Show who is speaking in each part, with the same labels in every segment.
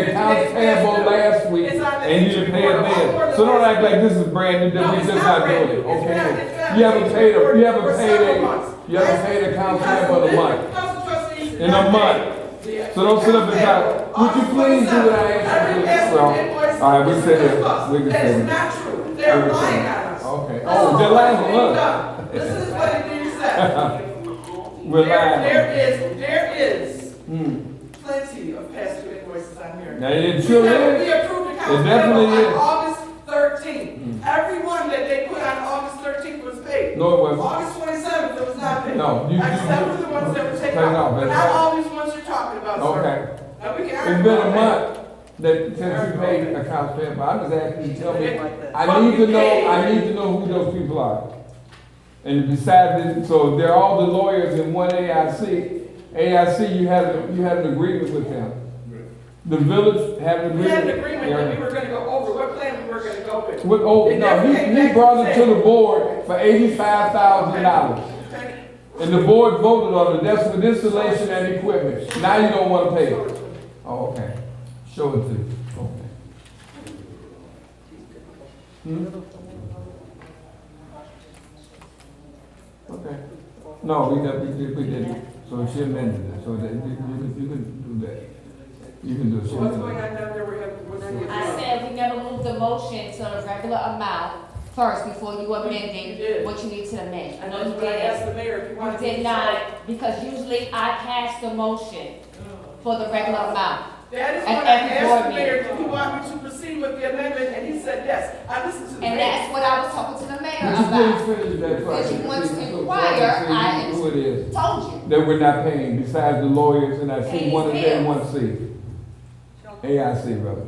Speaker 1: was payable last week and you didn't pay it then. So don't act like this is brand new, that we just not doing it, okay? You haven't paid, a- you haven't paid a, you haven't paid a council member the month.
Speaker 2: In a month. So don't sit up and talk. Would you please do what I asked you to do? So, All right, we sit here. We can sit here.
Speaker 1: not true.
Speaker 2: They're lying at us.
Speaker 1: Okay.
Speaker 2: Oh, they're lying on us.
Speaker 1: This is what it is that.
Speaker 2: We're lying.
Speaker 1: There is, there is
Speaker 2: Mm.
Speaker 1: plenty of past due invoices on here.
Speaker 2: Now, it
Speaker 1: We
Speaker 2: sure
Speaker 1: have-
Speaker 2: is.
Speaker 1: We approved the council
Speaker 2: It definitely
Speaker 1: bill on
Speaker 2: is. Mm-hmm.
Speaker 1: August thirteenth. Everyone that they put on August thirteenth was paid.
Speaker 2: No, it wasn't.
Speaker 1: August twenty-seventh, it was not paid.
Speaker 2: No, you- you-
Speaker 1: Except for the ones that were taken
Speaker 2: No, no,
Speaker 1: out.
Speaker 2: that's-
Speaker 1: But not all these ones you're talking about, sir.
Speaker 2: Okay.
Speaker 1: Now, we can
Speaker 2: It's
Speaker 1: argue
Speaker 2: been a
Speaker 1: about that.
Speaker 2: month that since you paid accounts payable. I'm just asking you to tell me. I
Speaker 1: But
Speaker 2: need to
Speaker 1: you
Speaker 2: know, I
Speaker 1: paid.
Speaker 2: need to know who those people are. And besides, this- so they're all the lawyers in one AIC. AIC, you had, you had an agreement with them. The village had an
Speaker 1: We
Speaker 2: agreement.
Speaker 1: had an agreement that we were gonna go over, what plan we were gonna go with.
Speaker 2: With, oh,
Speaker 1: It
Speaker 2: no,
Speaker 1: never
Speaker 2: he,
Speaker 1: came
Speaker 2: he
Speaker 1: back
Speaker 2: brought it to the
Speaker 1: said-
Speaker 2: board for eighty-five thousand dollars.
Speaker 1: Okay?
Speaker 2: And the board voted on it, that's for installation and equipment. Now you don't wanna pay it. Oh, okay. Show it to you. Okay. Hmm? Okay. No, we got, we did, we did. So she amended it, so that, you, you can, you can do that. You can do it. She
Speaker 1: So what's
Speaker 2: amended
Speaker 1: going
Speaker 2: it.
Speaker 1: on down there, we have, what's on
Speaker 3: I said we never moved the motion to the regular amount first before you
Speaker 1: You did.
Speaker 3: amended what you need to amend.
Speaker 1: I
Speaker 3: I
Speaker 1: know
Speaker 3: know you
Speaker 1: what I asked
Speaker 3: did.
Speaker 1: the mayor if you wanted
Speaker 3: You
Speaker 1: to.
Speaker 3: did not, because usually I pass the motion
Speaker 1: Oh.
Speaker 3: for the regular amount.
Speaker 1: That is
Speaker 3: At
Speaker 1: what I
Speaker 3: every
Speaker 1: asked the
Speaker 3: board
Speaker 1: mayor,
Speaker 3: meeting.
Speaker 1: do you want me to proceed with the amendment, and he said yes. I listened to the
Speaker 3: And
Speaker 1: mayor.
Speaker 3: that's what I was talking to the mayor
Speaker 2: But you
Speaker 3: about.
Speaker 2: didn't finish that part.
Speaker 3: Because you want to
Speaker 2: So- so-
Speaker 3: inquire,
Speaker 2: so you
Speaker 3: I-
Speaker 2: Who it is.
Speaker 3: Told you.
Speaker 2: that we're not paying besides the lawyers and I see
Speaker 3: Paying
Speaker 2: one of them,
Speaker 3: bills.
Speaker 2: one C. AIC, brother.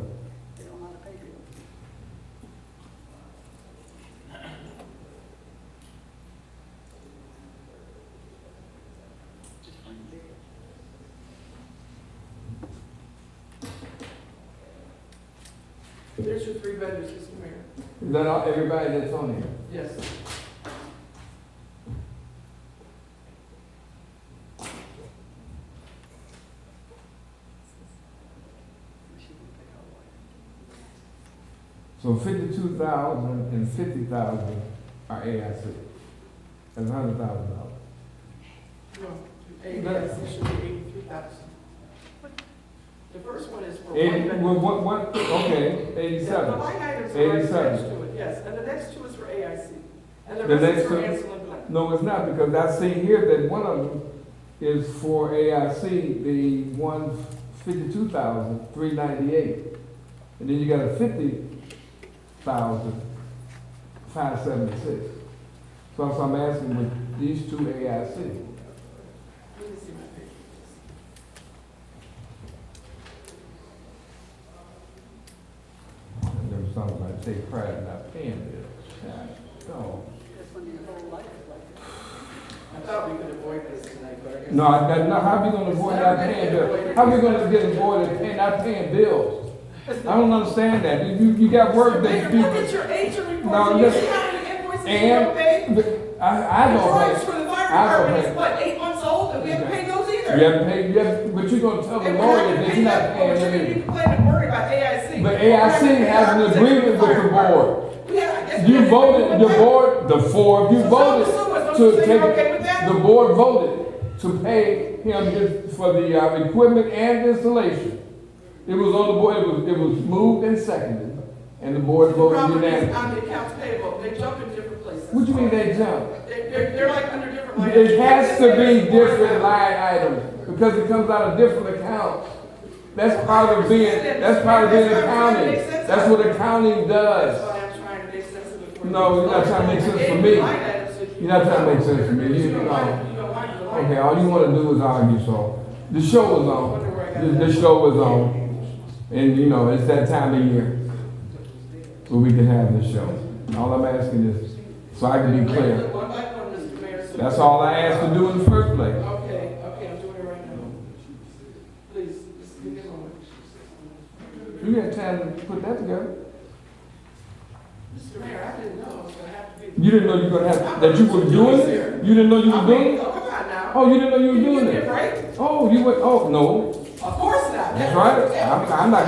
Speaker 1: There's your three vendors, Mr. Mayor.
Speaker 2: Is that all, everybody that's on here?
Speaker 1: Yes.
Speaker 2: So fifty-two thousand and fifty thousand are AIC. That's hundred thousand dollars.
Speaker 1: No, yes, it should be eighty-three thousand. The first one is for one
Speaker 2: Eighty,
Speaker 1: vendor.
Speaker 2: well, what, what, okay,
Speaker 1: Yeah, The
Speaker 2: eighty-seven.
Speaker 1: line items are attached
Speaker 2: 87.
Speaker 1: to it, yes, and the next two is for AIC. And the
Speaker 2: The
Speaker 1: rest is
Speaker 2: next
Speaker 1: for
Speaker 2: two-
Speaker 1: Ansel and Blank.
Speaker 2: No, it's not, because I see here that one of them is for AIC, the one fifty-two thousand, three ninety-eight. And then you got a fifty thousand, five seventy-six. So that's what I'm asking with these two AIC.
Speaker 1: Let me see my papers.
Speaker 2: There's something like take pride in not paying bills. No,
Speaker 1: I thought we could avoid this tonight, but I guess.
Speaker 2: no, I, I- no, how we gonna avoid not paying bills? How we gonna get avoided paying, not paying bills? I don't understand that. You, you got work that
Speaker 1: Mayor,
Speaker 2: people.
Speaker 1: Look at your agent
Speaker 2: No,
Speaker 1: reports, and you
Speaker 2: listen.
Speaker 1: see how many invoices you don't pay?
Speaker 2: And I, I
Speaker 1: The
Speaker 2: don't
Speaker 1: drawings
Speaker 2: pay.
Speaker 1: for the
Speaker 2: I
Speaker 1: fire
Speaker 2: don't
Speaker 1: department
Speaker 2: pay.
Speaker 1: is what, eight months old, and we haven't paid those either?
Speaker 2: You haven't paid, you haven't, but you're gonna tell the
Speaker 1: And we're
Speaker 2: lawyer
Speaker 1: not gonna
Speaker 2: that
Speaker 1: pay
Speaker 2: you're not
Speaker 1: that,
Speaker 2: paying
Speaker 1: but
Speaker 2: them.
Speaker 1: you're
Speaker 2: either.
Speaker 1: gonna be complaining and worried about AIC.
Speaker 2: But AIC has an agreement with the board. You voted, the board, the four, of you voted to take, the board voted to pay him his, for the, uh, equipment and installation. It was on the board, it was, it was moved and seconded, and the board voted unanimously.
Speaker 1: on the accounts payable, they jump in different places.
Speaker 2: What do you mean they jumped?
Speaker 1: They- They're, they're like under different lines.
Speaker 2: It has to be different line items, because it comes out of different accounts. That's part of being, that's part of being accounting, that's what accounting
Speaker 1: That's
Speaker 2: does.
Speaker 1: why I'm trying to make sense of it. for you.
Speaker 2: No, you're not trying to make sense for me.
Speaker 1: Line items that you-
Speaker 2: You're not trying to make sense for me. You-
Speaker 1: You don't want-
Speaker 2: no.
Speaker 1: you don't want the line.
Speaker 2: Okay, all you wanna do is argue, so, the show was on, the, the show was on, and you know, it's that time of year where we can have the show. All I'm asking is, so I can be clear,
Speaker 1: One by one, Mr. Mayor, so-
Speaker 2: that's all I asked to do in the first place.
Speaker 1: Okay, okay, I'm doing it right now. Please, just give me a moment.
Speaker 2: You got time to put that together.
Speaker 1: Mr. Mayor, I didn't know I was gonna have to be.
Speaker 2: You didn't know you were gonna have, that you were doing it? You didn't know you
Speaker 1: I
Speaker 2: were
Speaker 1: mean,
Speaker 2: doing it?
Speaker 1: Oh, come on now.
Speaker 2: Oh, you didn't know you
Speaker 1: You
Speaker 2: were doing
Speaker 1: give me a
Speaker 2: it?
Speaker 1: break?
Speaker 2: Oh, you went, oh, no,
Speaker 1: Of course not.
Speaker 2: that's right. I'm, I'm not